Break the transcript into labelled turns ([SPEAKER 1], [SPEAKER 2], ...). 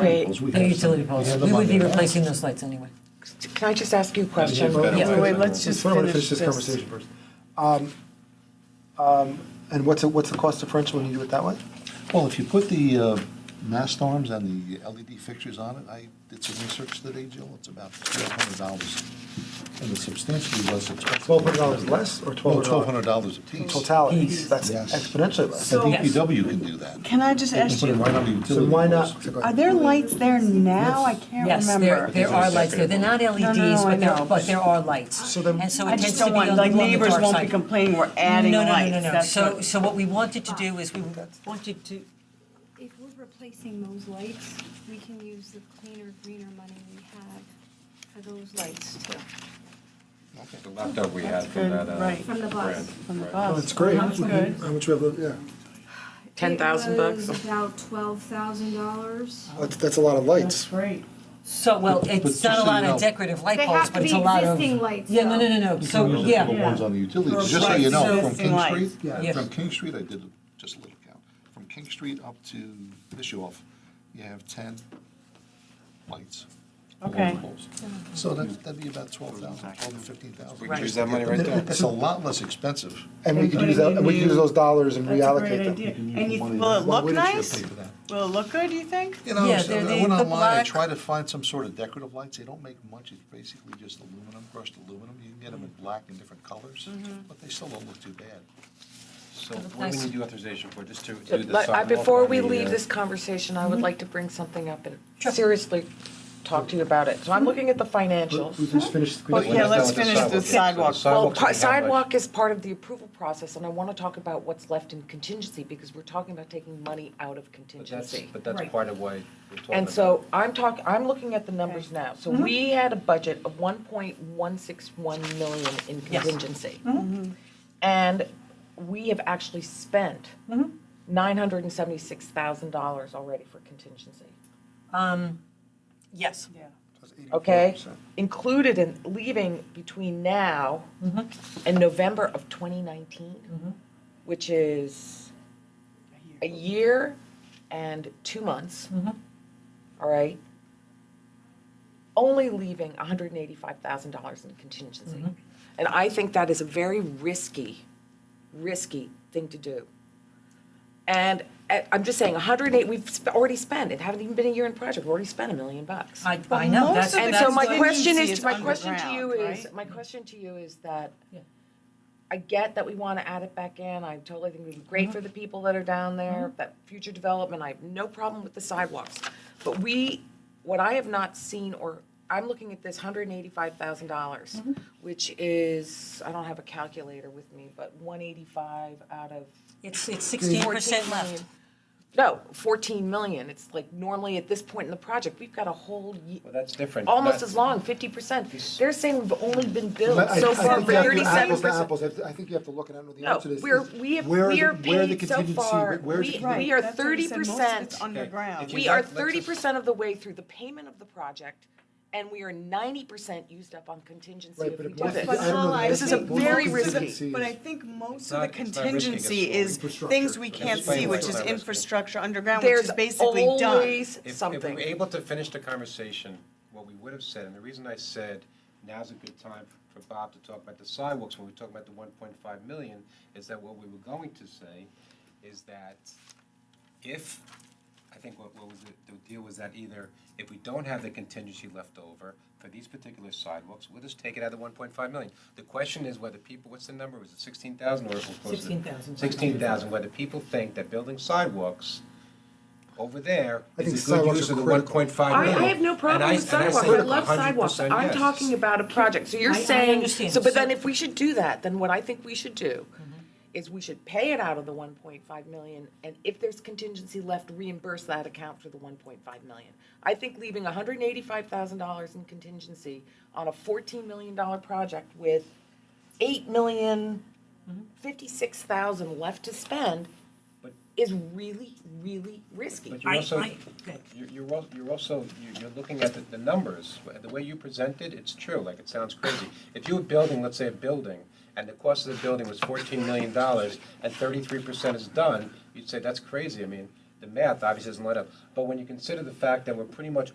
[SPEAKER 1] Wait,
[SPEAKER 2] Poles we
[SPEAKER 3] The
[SPEAKER 2] have.
[SPEAKER 3] utility poles.
[SPEAKER 2] Yeah, the
[SPEAKER 3] We would be
[SPEAKER 2] Monday.
[SPEAKER 3] replacing those lights anyway.
[SPEAKER 1] can I just ask you a question?
[SPEAKER 2] Yeah, better
[SPEAKER 3] Yeah.
[SPEAKER 2] way.
[SPEAKER 1] Wait, let's just
[SPEAKER 4] Why don't we
[SPEAKER 1] finish
[SPEAKER 4] this
[SPEAKER 1] this.
[SPEAKER 4] conversation first? Um, um, And what's, the- what's the cost differential when you do it that way?
[SPEAKER 2] Well, if you put the uh, mast arms and the LED fixtures on it, I did some research today, Jill, it's about twelve hundred dollars. And it's substantially less expensive.
[SPEAKER 4] Twelve hundred dollars less or
[SPEAKER 2] No,
[SPEAKER 4] twelve
[SPEAKER 2] twelve hundred
[SPEAKER 4] hundred dollars?
[SPEAKER 2] dollars apiece.
[SPEAKER 4] Totality,
[SPEAKER 3] Yes.
[SPEAKER 4] that's
[SPEAKER 2] Yes.
[SPEAKER 4] exponentially
[SPEAKER 2] The
[SPEAKER 4] less.
[SPEAKER 5] So-
[SPEAKER 2] DPW can do that.
[SPEAKER 5] Can I just
[SPEAKER 2] They can
[SPEAKER 5] ask
[SPEAKER 2] put it
[SPEAKER 5] you,
[SPEAKER 2] right on the
[SPEAKER 4] So
[SPEAKER 2] utility
[SPEAKER 4] why
[SPEAKER 2] poles.
[SPEAKER 4] not?
[SPEAKER 5] are there lights there now? I can't
[SPEAKER 3] Yes, there,
[SPEAKER 5] remember.
[SPEAKER 3] there are lights there. They're not LEDs,
[SPEAKER 5] I
[SPEAKER 3] but there,
[SPEAKER 5] know.
[SPEAKER 3] but there are lights.
[SPEAKER 4] So then-
[SPEAKER 3] And so
[SPEAKER 5] I
[SPEAKER 3] it tends
[SPEAKER 5] just
[SPEAKER 3] to be
[SPEAKER 5] don't
[SPEAKER 3] on the
[SPEAKER 5] want,
[SPEAKER 3] on the dark
[SPEAKER 5] like,
[SPEAKER 3] side.
[SPEAKER 5] neighbors won't be complaining we're adding
[SPEAKER 3] No, no,
[SPEAKER 5] lights.
[SPEAKER 3] No, no, no, no.
[SPEAKER 5] That's
[SPEAKER 3] So,
[SPEAKER 5] what-
[SPEAKER 3] so what we wanted to do is we wanted to,
[SPEAKER 6] If we're replacing those lights, we can use the cleaner, greener money we have for those lights too.
[SPEAKER 7] The laptop we had from
[SPEAKER 5] good,
[SPEAKER 7] that, uh.
[SPEAKER 5] right.
[SPEAKER 6] From the bus.
[SPEAKER 7] brand,
[SPEAKER 5] From the
[SPEAKER 7] right.
[SPEAKER 5] bus.
[SPEAKER 4] That's Oh, great.
[SPEAKER 5] That's good.
[SPEAKER 4] How much we have, left? yeah,
[SPEAKER 6] $10,000 bucks? about $12,000.
[SPEAKER 4] that's, that's a lot of
[SPEAKER 5] That's
[SPEAKER 4] lights.
[SPEAKER 5] great.
[SPEAKER 3] so, well, it's
[SPEAKER 2] just
[SPEAKER 3] not a
[SPEAKER 2] so you
[SPEAKER 3] lot
[SPEAKER 2] know-
[SPEAKER 3] of decorative light
[SPEAKER 6] They
[SPEAKER 3] poles,
[SPEAKER 6] have to
[SPEAKER 3] but it's a
[SPEAKER 6] be
[SPEAKER 3] lot of.
[SPEAKER 6] existing lights,
[SPEAKER 3] Yeah, no, no,
[SPEAKER 6] though.
[SPEAKER 3] no, no.
[SPEAKER 2] You
[SPEAKER 3] So,
[SPEAKER 2] can use it for the
[SPEAKER 3] yeah.
[SPEAKER 2] ones on the utilities,
[SPEAKER 5] Those
[SPEAKER 2] just so you know, from
[SPEAKER 5] lights.
[SPEAKER 2] King
[SPEAKER 5] Lights.
[SPEAKER 2] Street,
[SPEAKER 3] Yes.
[SPEAKER 2] from King Street, I did just a little count. From King Street up to Bischoff, you have ten lights. along the
[SPEAKER 5] Okay.
[SPEAKER 2] poles. So that'd, that'd be about twelve thousand, twelve to fifteen thousand.
[SPEAKER 7] We can use that money right there.
[SPEAKER 2] It's a lot less expensive.
[SPEAKER 4] And we could
[SPEAKER 5] But
[SPEAKER 4] use
[SPEAKER 5] if
[SPEAKER 4] that,
[SPEAKER 5] you
[SPEAKER 4] and we could use
[SPEAKER 5] knew-
[SPEAKER 4] those dollars and
[SPEAKER 5] That's a great
[SPEAKER 4] reallocate
[SPEAKER 5] idea.
[SPEAKER 4] them.
[SPEAKER 5] And you,
[SPEAKER 2] Money to-
[SPEAKER 5] will it
[SPEAKER 2] Why
[SPEAKER 5] look
[SPEAKER 2] wouldn't you
[SPEAKER 5] nice?
[SPEAKER 2] pay for that?
[SPEAKER 5] Will it look good, do you think?
[SPEAKER 2] You know,
[SPEAKER 3] Yeah,
[SPEAKER 2] so
[SPEAKER 3] they're the-
[SPEAKER 2] I went
[SPEAKER 3] the
[SPEAKER 2] online, I
[SPEAKER 3] black-
[SPEAKER 2] tried to find some sort of decorative lights, they don't make much, it's basically just aluminum, crushed aluminum, you can get them in black and different colors, but they still don't look too bad.
[SPEAKER 7] So what do we need your authorization for, just to do the
[SPEAKER 1] Let- I-
[SPEAKER 7] sidewalk
[SPEAKER 1] Before
[SPEAKER 7] on
[SPEAKER 1] we
[SPEAKER 7] the,
[SPEAKER 1] leave
[SPEAKER 7] uh,
[SPEAKER 1] this conversation, I would like to bring something up and seriously talk to you about it. So I'm looking at the
[SPEAKER 4] But We
[SPEAKER 1] financials.
[SPEAKER 4] just finished.
[SPEAKER 5] Well, yeah,
[SPEAKER 7] Let's
[SPEAKER 5] let's
[SPEAKER 7] start with
[SPEAKER 5] finish the sidewalk.
[SPEAKER 7] So
[SPEAKER 1] Well,
[SPEAKER 7] sidewalks
[SPEAKER 1] pa-
[SPEAKER 7] we have, like-
[SPEAKER 1] sidewalk is part of the approval process, and I want to talk about what's left in contingency, because we're talking about taking money out of
[SPEAKER 7] But that's,
[SPEAKER 1] contingency.
[SPEAKER 7] but that's part of why we're talking.
[SPEAKER 1] And so I'm talking, I'm looking at the numbers now. So we had a budget of 1.161 million in
[SPEAKER 3] Yes.
[SPEAKER 1] contingency. And we have actually spent $976,000 already for contingency.
[SPEAKER 3] Yes.
[SPEAKER 5] Yeah.
[SPEAKER 1] Okay? Included in leaving between now and November of 2019, which is a year and two months, all right? Only leaving $185,000 in contingency. And I think that is a very risky, risky thing to do. And uh, I'm just saying, 108, we've sp- already spent, it haven't even been a year in project, we've already spent a million bucks.
[SPEAKER 3] I, I know, that's,
[SPEAKER 5] most of
[SPEAKER 1] And
[SPEAKER 3] that's
[SPEAKER 1] so
[SPEAKER 5] That's
[SPEAKER 1] my
[SPEAKER 5] the-
[SPEAKER 3] the-
[SPEAKER 1] question
[SPEAKER 5] Agency
[SPEAKER 1] is,
[SPEAKER 5] is
[SPEAKER 1] my question to you
[SPEAKER 5] underground,
[SPEAKER 1] is,
[SPEAKER 5] right?
[SPEAKER 1] my question to you is that
[SPEAKER 3] Yeah.
[SPEAKER 1] I get that we want to add it back in. I totally think it would be great for the people that are down there, that future development. I have no problem with the sidewalks. But we, what I have not seen or, I'm looking at this hundred and eighty-five thousand dollars, which is, I don't have a calculator with me, but one eighty-five out of
[SPEAKER 3] It's, it's sixteen percent
[SPEAKER 1] 14
[SPEAKER 3] left.
[SPEAKER 1] million. No, fourteen million. It's like normally at this point in the project, we've got a whole ye-
[SPEAKER 7] Well, that's different.
[SPEAKER 1] almost
[SPEAKER 7] That-
[SPEAKER 1] as long, fifty percent. They're saying we've only been billed
[SPEAKER 4] I- I
[SPEAKER 1] so
[SPEAKER 4] think
[SPEAKER 1] far
[SPEAKER 4] you
[SPEAKER 1] for
[SPEAKER 4] have to
[SPEAKER 1] thirty-seven
[SPEAKER 4] apples to
[SPEAKER 1] percent.
[SPEAKER 4] apples. I th- I think you have to look, and I don't know the
[SPEAKER 1] No,
[SPEAKER 4] answer to this.
[SPEAKER 1] we're,
[SPEAKER 4] is
[SPEAKER 1] we have,
[SPEAKER 4] where are
[SPEAKER 1] we
[SPEAKER 4] the-
[SPEAKER 1] are
[SPEAKER 4] where the
[SPEAKER 1] paid so
[SPEAKER 4] contingency?
[SPEAKER 1] far,
[SPEAKER 4] Where- where's the
[SPEAKER 1] we,
[SPEAKER 4] contingency?
[SPEAKER 1] we are
[SPEAKER 5] That's what
[SPEAKER 1] thirty
[SPEAKER 5] you said, most of
[SPEAKER 1] percent.
[SPEAKER 5] it's underground.
[SPEAKER 7] If you
[SPEAKER 1] We are
[SPEAKER 7] don't, let's
[SPEAKER 1] thirty
[SPEAKER 7] just-
[SPEAKER 1] percent of the way through the payment of the project, and we are ninety percent used up on contingency
[SPEAKER 4] Right,
[SPEAKER 1] if
[SPEAKER 4] but
[SPEAKER 1] we
[SPEAKER 4] it
[SPEAKER 1] do
[SPEAKER 4] must-
[SPEAKER 1] this.
[SPEAKER 4] I don't know the
[SPEAKER 1] This is a
[SPEAKER 4] answer. Most
[SPEAKER 1] very
[SPEAKER 4] of the
[SPEAKER 1] risky-
[SPEAKER 4] contingency
[SPEAKER 5] But I
[SPEAKER 4] is-
[SPEAKER 5] think most
[SPEAKER 7] It's
[SPEAKER 5] of the
[SPEAKER 7] not- it's not risky, it's
[SPEAKER 5] contingency is
[SPEAKER 4] Infrastructure.
[SPEAKER 5] things we can't
[SPEAKER 7] Explain
[SPEAKER 5] see,
[SPEAKER 7] why
[SPEAKER 5] which
[SPEAKER 7] it's
[SPEAKER 5] is
[SPEAKER 7] not risky.
[SPEAKER 5] infrastructure underground, which
[SPEAKER 1] There's
[SPEAKER 5] is basically done.
[SPEAKER 1] always
[SPEAKER 7] If- If we
[SPEAKER 1] something.
[SPEAKER 7] were able to finish the conversation, what we would have said, and the reason I said now's a good time for Bob to talk about the sidewalks, when we talk about the one point five million, is that what we were going to say is that if, I think what, what was it, the deal was that either if we don't have the contingency left over for these particular sidewalks, we'll just take it out of the one point five million. The question is whether people, what's the number, was it sixteen thousand or was it close to?
[SPEAKER 3] 16,000.
[SPEAKER 7] Sixteen thousand, whether people think that building sidewalks over there
[SPEAKER 4] I think
[SPEAKER 7] is a good
[SPEAKER 4] sidewalks
[SPEAKER 7] use
[SPEAKER 4] are
[SPEAKER 7] of the one
[SPEAKER 4] critical.
[SPEAKER 7] point five
[SPEAKER 1] I,
[SPEAKER 7] million.
[SPEAKER 1] I have no problem with sidewalks, I love sidewalks, I'm talking about a project, so you're
[SPEAKER 3] I- I
[SPEAKER 1] saying,
[SPEAKER 3] understand.
[SPEAKER 1] so, but then
[SPEAKER 3] So- Mm-hmm.
[SPEAKER 1] if we should do that, then what I think we should do is we should pay it out of the one point five million, and if there's contingency left, reimburse that account for the one point five million. I think leaving hundred and eighty-five thousand dollars in contingency on a fourteen million dollar project with eight million
[SPEAKER 3] Mm-hmm.
[SPEAKER 1] fifty-six thousand left to spend
[SPEAKER 7] But-
[SPEAKER 1] is really, really risky.
[SPEAKER 7] But you're
[SPEAKER 3] I-
[SPEAKER 7] also,
[SPEAKER 3] I- okay.
[SPEAKER 7] you're, you're al- you're also, you're, you're looking at the, the numbers, the way you presented, it's true, like, it sounds crazy. If you were building, let's say, a building, and the cost of the building was fourteen million dollars, and thirty-three percent is done, you'd say, that's crazy, I mean, the math obviously doesn't line up. But when you consider the fact that we're pretty much